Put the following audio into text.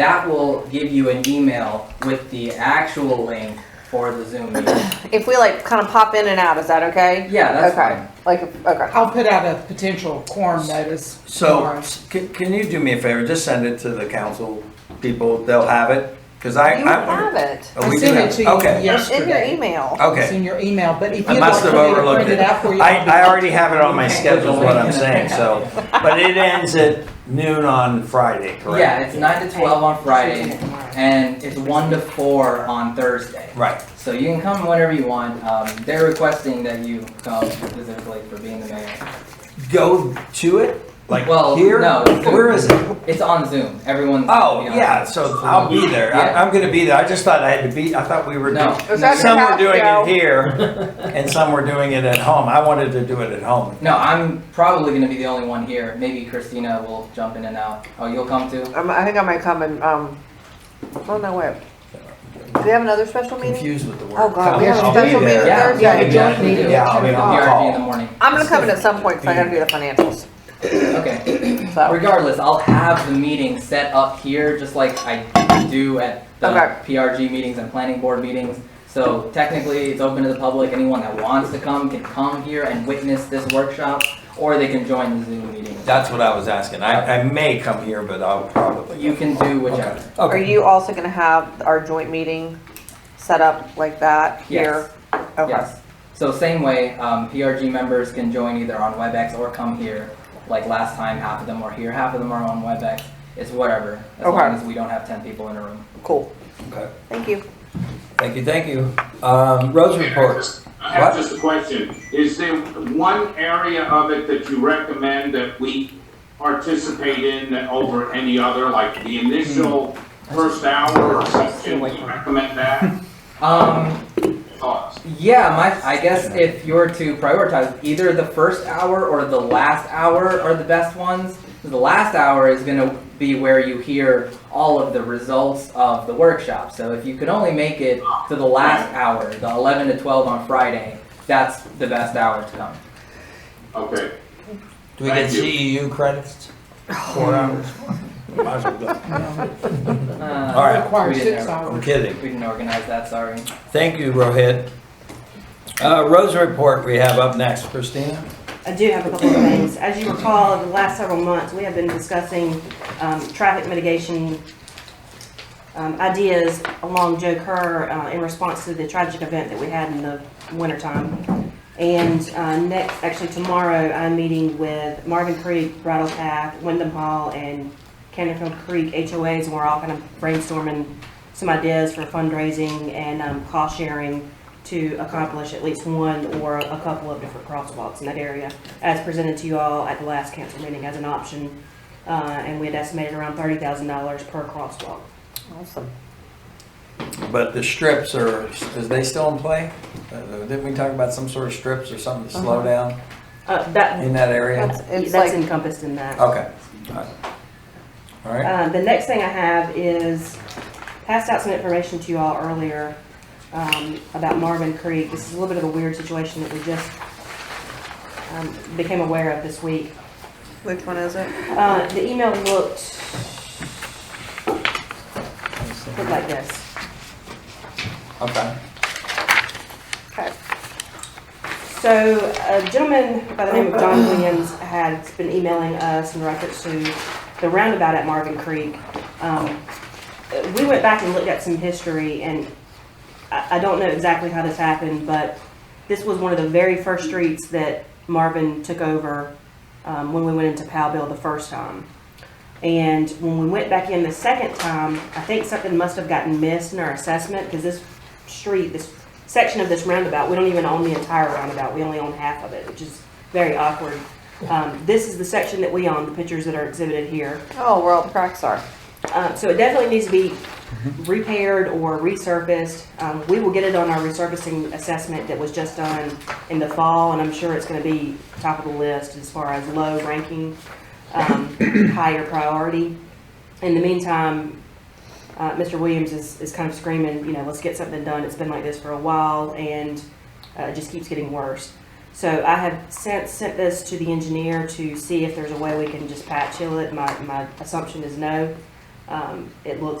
That will give you an email with the actual link for the Zoom meeting. If we like kind of pop in and out, is that okay? Yeah, that's okay. fine. Like okay. I'll put out a potential quorum notice. So, tomorrow. s- can, can you do me a favor, just send it to the council people, they'll have it, cause I, You have I. it. Oh, I we do sent have- it to you Okay, It's in your yesterday. email. It's okay, in your email, but if I you'd must like have for me to print overlooked it it, out for you. I, I already have it on my schedule, is what I'm saying, so, but it ends at noon on Friday, Yeah, correct? it's nine to twelve on Friday, and it's one to four on Thursday. Right, So you can come whenever you want. Um, they're requesting that you come specifically for being the mayor. go to it, like Well, here, no, it's gonna- where is it? It's on Zoom. Everyone's. Oh, you know, yeah, so I'll be there, Yeah. I, I'm gonna be there, I just thought I had to be, I thought we were. No. Is that Some your were house, doing Joe? it here, and some were doing it at home, I wanted to do it at home. No, I'm probably gonna be the only one here. Maybe Christina will jump in and out. Oh, you'll come too? Um, I think I might come and um. Oh no, wait. Do we have another special meeting? confused with the word. Oh, God, we have a I'll be special there. meeting Yeah, Thursday. yeah, Yeah, we joint definitely meeting. do. Yeah, I'll be The on PRG in the call. morning. I'm gonna come in at some point because I gotta do the financials. Okay. So Regardless, I'll have the meeting set up here, just like I do at the Okay. PRG meetings and planning board meetings. So technically, it's open to the public. Anyone that wants to come can come here and witness this workshop, or they can join the Zoom meeting. That's what I was asking. I, I may come here, but I'll probably. You can do Okay. whichever. are Okay. you also gonna have our joint meeting set up like that here? Okay. Yes. So same way, um, PRG members can join either on WebEx or come here. Like last time, half of them were here, half of them are on WebEx. It's whatever, as Okay. long as we don't have ten people in a room. Cool. Okay. Thank you. Thank you, thank you. Um, roads reports. I have What? just a question. Is there one area of it that you recommend that we participate in over any other, like the initial first hour or something? Do you recommend that? Um, Thoughts? Yeah, my I guess if you were to prioritize, either the first hour or the last hour are the best ones. The last hour is going to be where you hear all of the results of the workshop. So if you could only make it to the last hour, the 11 to 12 on Friday, that's the best hour to come. Okay. Do we get Thank you. CEU credits? Oh. Four hours. Might as well go. Uh, All right. Require We didn't six have- I'm hours. kidding. We didn't organize that, sorry. Thank you, Rohit. Uh, roads report we have up next. Christina? I do have a couple of things. As you recall, over the last several months, we have been discussing um, traffic mitigation um, ideas along Joe Kerr uh, in response to the tragic event that we had in the wintertime. And uh, next, actually tomorrow, I'm meeting with Marvin Creek, Bridle Path, Wyndham Hall, and Canterville Creek HOAs, and we're all kind of brainstorming some ideas for fundraising and um, cost sharing to accomplish at least one or a couple of different crosswalks in that area, as presented to you all at the last council meeting as an option. Uh, And we had estimated around $30,000 per crosswalk. Awesome. But the strips are, is they still in play? Uh, Didn't we talk about some sort of strips or something to slow down Uh, That, in that area? Uh-huh. That's, it's that's like, encompassed in that. Okay. All right. All right. Uh, the next thing I have is passed out some information to you all earlier um, about Marvin Creek. This is a little bit of a weird situation that we just um, became aware of this week. which one is it? Uh, the email looked, looked like this. Okay. Okay. So a gentleman by the name of John Williams had been emailing us in reference to the roundabout at Marvin Creek. Um, We went back and looked at some history, and I, I don't know exactly how this happened, but this was one of the very first streets that Marvin took over um, when we went into Powellville the first time. And when we went back in the second time, I think something must have gotten missed in our assessment, because this street, this section of this roundabout, we don't even own the entire roundabout, we only own half of it, which is very awkward. Um, this is the section that we own, the pictures that are exhibited here. Oh, where all the cracks are. Uh, so it definitely needs to be repaired or resurfaced. Um, we will get it on our resurfacing assessment that was just done in the fall, and I'm sure it's gonna be top of the list as far as low ranking, um, higher priority. In the meantime, uh, Mr. Williams is, is kind of screaming, you know, let's get something done. It's been like this for a while, and, uh, it just keeps getting worse. So I have sent, sent this to the engineer to see if there's a way we can just patch heal it. My, my assumption is no. Um, Um, It looks